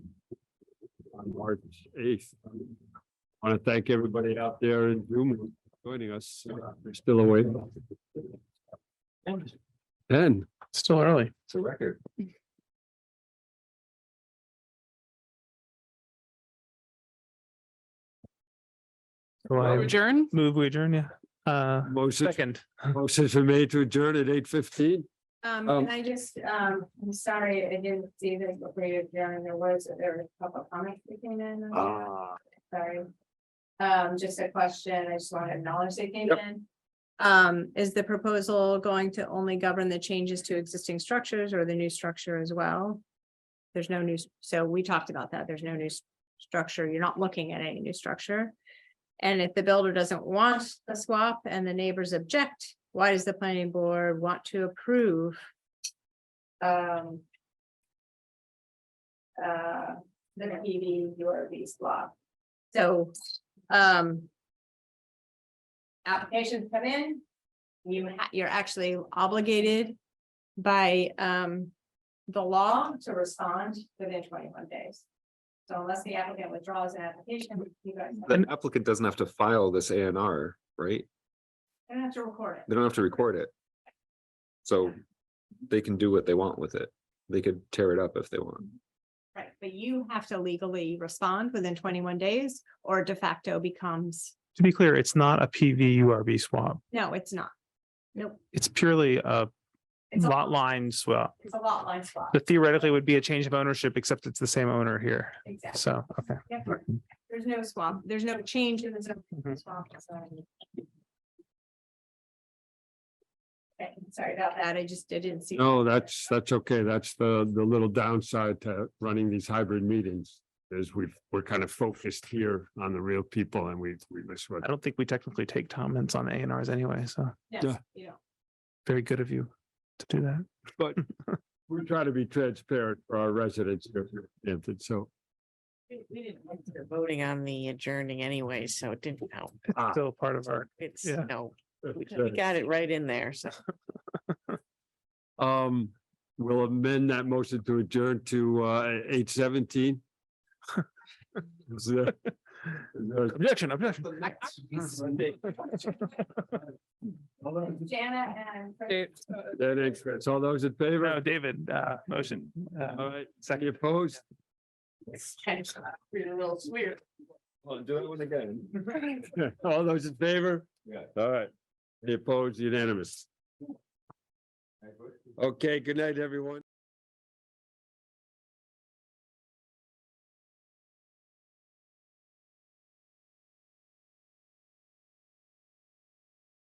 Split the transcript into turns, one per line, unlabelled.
March eighth. Want to thank everybody out there in Zoom joining us. They're still awake. Ten.
Still early.
It's a record.
So I
Adjourn?
move we adjourn, yeah. Uh,
Motion,
second.
motion for me to adjourn at eight fifteen.
Um,
Um,
and I just, um, I'm sorry, I didn't see that before you, Darren, there was, there was a couple comments that came in. on that.
Ah,
Sorry. Um, just a question, I just want to acknowledge they came
Yep.
in. Um, is the proposal going to only govern the changes to existing structures or the new structure as well? There's no new, so we talked about that, there's no new s- structure, you're not looking at any new structure. And if the builder doesn't want the swap and the neighbors object, why does the planning board want to approve? Um. Uh, the PV URV swap? So, um. Applications come in, you ha- you're actually obligated by, um. The law to respond within twenty-one days. So unless the applicant withdraws an application, you guys
The applicant doesn't have to file this A and R, right?
don't have to record it.
They don't have to record it. So they can do what they want with it. They could tear it up if they want.
Right, but you have to legally respond within twenty-one days or de facto becomes,
To be clear, it's not a PV URB swap.
no, it's not. Nope.
It's purely a
It's a-
lot line swap.
It's a lot line swap.
That theoretically would be a change of ownership, except it's the same owner here.
Exactly.
So, okay.
Yep. There's no swap, there's no change in the zone
Mhm.
swap. sorry. Okay, sorry about that, I just I didn't see.
no, that's, that's okay. That's the, the little downside to running these hybrid meetings. Is we've, we're kind of focused here on the real people and we, we miss what.
I don't think we technically take comments on A and Rs anyway, so
No,
yeah.
you don't.
very good of you to do that.
We try to be transparent for our residents here, Hampton, so.
We we didn't want to voting on the adjourning anyway, so it didn't help.
Ah.
It's still part of our,
It's,
Yeah.
no, we we got it right in there, so.
Um, we'll amend that motion to adjourn to uh eight seventeen. Is there- is there-
objection, objection.
Jana and. Chris,
That is, Chris. all those in
No,
favor?
David, uh, motion. uh,
All right, any
Second.
opposed?
It's kind of real weird.
Well, do it one again. All those in favor? Yeah. All right, Any opposed, unanimous. Okay, good night, everyone.